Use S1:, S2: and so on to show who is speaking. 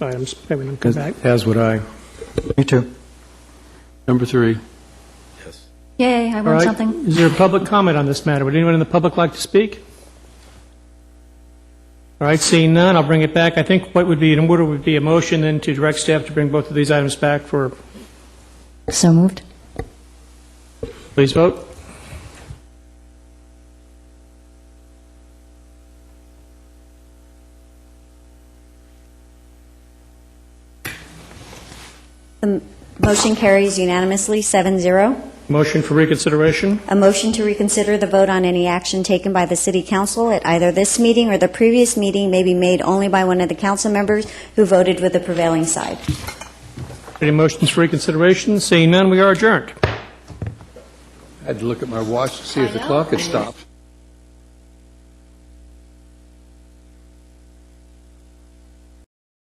S1: items, maybe then come
S2: As-
S1: back.
S2: As would I.
S3: Me too.
S2: Number three.
S4: Yay, I
S1: All
S4: want
S1: right.
S4: something.
S1: Is there a public comment on this matter? Would anyone in the public like to speak? All right, seeing none, I'll bring it back. I think what would be in order would be a motion then to direct staff to bring both of these items back for,
S4: So moved.
S1: please vote.
S5: Motion carries unanimously, 7-0.
S1: Motion for reconsideration.
S5: A motion to reconsider the vote on any action taken by the City Council at either this meeting or the previous meeting may be made only by one of the council members who voted with the prevailing side.
S1: Any motions for reconsideration? Seeing none, we are adjourned.
S2: I had to look at my watch to see if the clock had stopped.